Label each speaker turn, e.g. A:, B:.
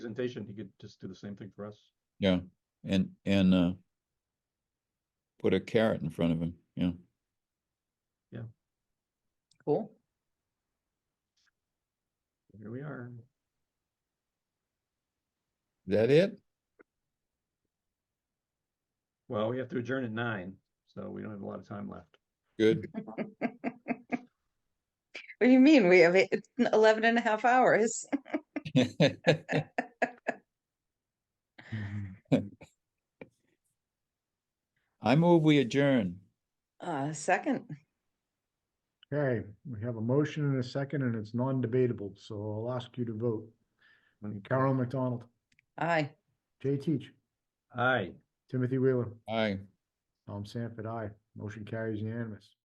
A: presentation, he could just do the same thing for us.
B: Yeah, and, and, uh, put a carrot in front of him, yeah.
C: Cool.
A: Here we are.
B: Is that it?
A: Well, we have to adjourn at nine, so we don't have a lot of time left.
B: Good.
C: What do you mean? We have eight- 11 and a half hours.
B: I move we adjourn.
C: Uh, second,
D: Okay, we have a motion and a second, and it's non-debatable, so I'll ask you to vote. Carol McDonald,
C: aye.
D: Jay Teach,
A: Aye.
D: Timothy Wheeler,
B: Aye.
D: Tom Sanford, aye. Motion carries unanimous.